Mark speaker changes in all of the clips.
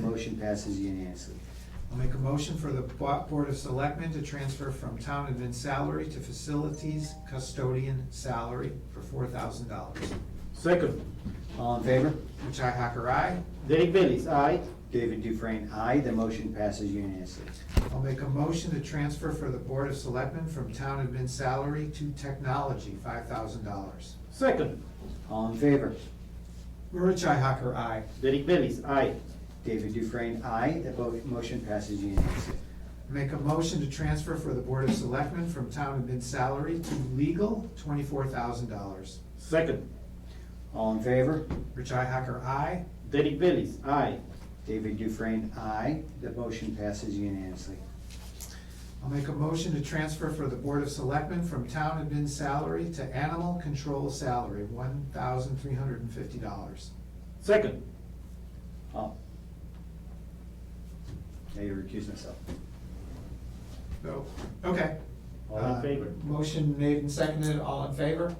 Speaker 1: Motion passes unanimously.
Speaker 2: I'll make a motion for the Bo- Board of Selectmen to transfer from town admin salary to facilities custodian salary for four thousand dollars.
Speaker 3: Second,
Speaker 1: All in favor?
Speaker 2: Richi Hacker, aye.
Speaker 3: Derek Bellis, aye.
Speaker 1: David Dufresne, aye. The motion passes unanimously.
Speaker 2: I'll make a motion to transfer for the Board of Selectmen from town admin salary to technology, five thousand dollars.
Speaker 3: Second,
Speaker 1: All in favor?
Speaker 2: Richi Hacker, aye.
Speaker 3: Derek Bellis, aye.
Speaker 1: David Dufresne, aye. The vo- motion passes unanimously.
Speaker 2: Make a motion to transfer for the Board of Selectmen from town admin salary to legal, twenty-four thousand dollars.
Speaker 3: Second,
Speaker 1: All in favor?
Speaker 2: Richi Hacker, aye.
Speaker 3: Derek Bellis, aye.
Speaker 1: David Dufresne, aye. The motion passes unanimously.
Speaker 2: I'll make a motion to transfer for the Board of Selectmen from town admin salary to animal control salary, one thousand three hundred and fifty dollars.
Speaker 3: Second,
Speaker 1: Oh. I recuse myself.
Speaker 2: So, okay.
Speaker 3: all in
Speaker 2: Uh,
Speaker 3: favor?
Speaker 2: Motion made and seconded, all in favor?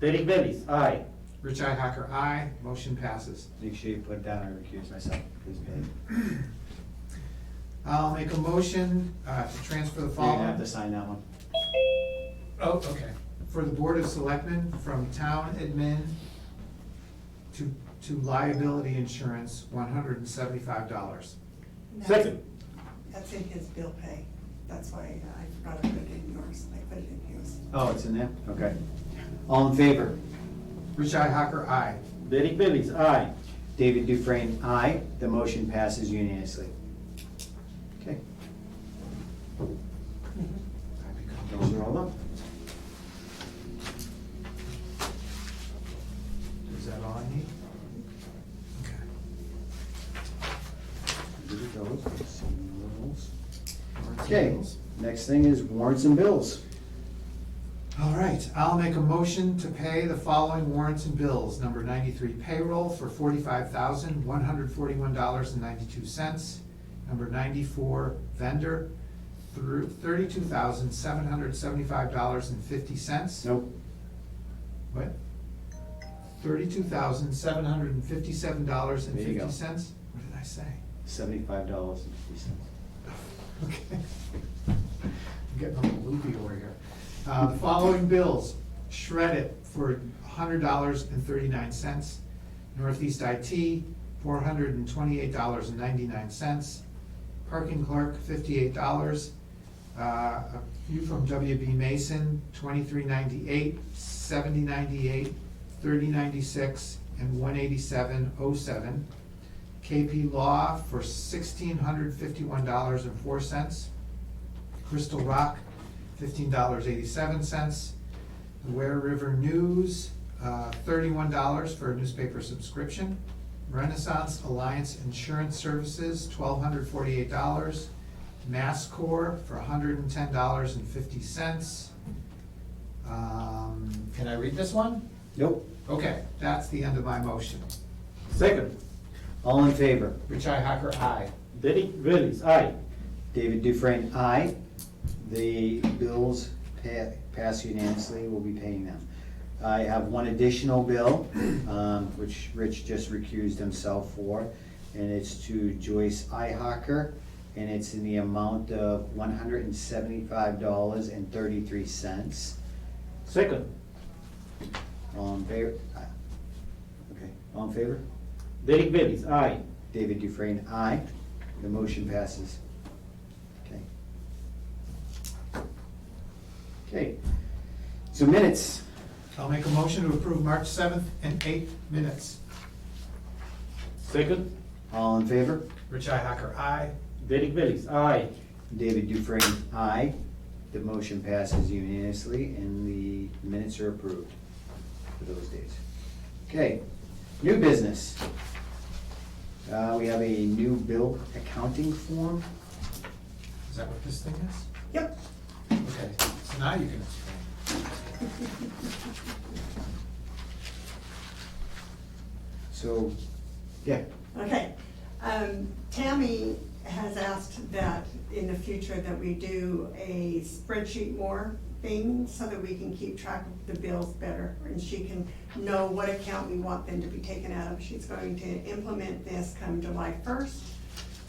Speaker 3: Derek Bellis, aye.
Speaker 2: Richi Hacker, aye. Motion passes.
Speaker 1: Make sure you put it down, I recuse myself. Please, Dave.
Speaker 2: I'll make a motion uh, to transfer the
Speaker 1: You're gonna have
Speaker 2: following.
Speaker 1: to sign that one.
Speaker 2: Oh, okay. For the Board of Selectmen from town admin to, to liability insurance, one hundred and seventy-five dollars.
Speaker 4: That's-
Speaker 3: Second,
Speaker 4: That's in his bill pay. That's why uh, I forgot to put it in yours. I put it in his.
Speaker 1: Oh, it's in there? Okay. All in favor?
Speaker 2: Richi Hacker, aye.
Speaker 3: Derek Bellis, aye.
Speaker 1: David Dufresne, aye. The motion passes unanimously. Okay,
Speaker 2: I become-
Speaker 1: those are all up.
Speaker 2: Is that all I need? Okay.
Speaker 1: Those are those. Some rules.
Speaker 2: Warrants and
Speaker 1: Okay,
Speaker 2: bills.
Speaker 1: next thing is warrants and bills.
Speaker 2: All right, I'll make a motion to pay the following warrants and bills. Number ninety-three payroll for forty-five thousand, one hundred forty-one dollars and ninety-two cents. Number ninety-four vendor through thirty-two thousand, seven hundred seventy-five dollars and fifty cents.
Speaker 1: Nope,
Speaker 2: What? Thirty-two thousand, seven hundred and fifty-seven dollars and
Speaker 1: There you go.
Speaker 2: fifty cents? What did I say?
Speaker 1: seventy-five dollars and fifty cents.
Speaker 2: Okay. I'm getting a little loopy over here. Uh, the following bills, shred it for hundred dollars and thirty-nine cents. Northeast IT, four hundred and twenty-eight dollars and ninety-nine cents. Parking clerk, fifty-eight dollars. Uh, a few from WB Mason, twenty-three ninety-eight, seventy ninety-eight, thirty ninety-six, and one eighty-seven oh seven. KP Law for sixteen hundred fifty-one dollars and four cents. Crystal Rock, fifteen dollars eighty-seven cents. The Ware River News, uh, thirty-one dollars for a newspaper subscription. Renaissance Alliance Insurance Services, twelve hundred forty-eight dollars. Mass Corps for hundred and ten dollars and fifty cents. Um, can I read this one?
Speaker 1: Nope,
Speaker 2: Okay, that's the end of my motion.
Speaker 3: Second,
Speaker 1: all in favor?
Speaker 2: Richi Hacker, aye.
Speaker 3: Derek Bellis, aye.
Speaker 1: David Dufresne, aye. The bills pa- pass unanimously, we'll be paying them. I have one additional bill, um, which Rich just recused himself for, and it's to Joyce Ihocker, and it's in the amount of one hundred and seventy-five dollars and thirty-three cents.
Speaker 3: Second,
Speaker 1: All in favor? Okay, all in favor?
Speaker 3: Derek Bellis, aye.
Speaker 1: David Dufresne, aye. The motion passes. Okay. Okay, so minutes,
Speaker 2: I'll make a motion to approve March seventh and eighth minutes.
Speaker 3: Second,
Speaker 1: all in favor?
Speaker 2: Richi Hacker, aye.
Speaker 3: Derek Bellis, aye.
Speaker 1: David Dufresne, aye. The motion passes unanimously and the minutes are approved for those days. Okay, new business. Uh, we have a new bill accounting form.
Speaker 2: Is that what this thing is?
Speaker 4: Yep.
Speaker 2: Okay, so now you can explain.
Speaker 1: So, yeah,
Speaker 4: Okay. Um, Tammy has asked that in the future that we do a spreadsheet more thing so that we can keep track of the bills better and she can know what account we want them to be taken out of. She's going to implement this come July first.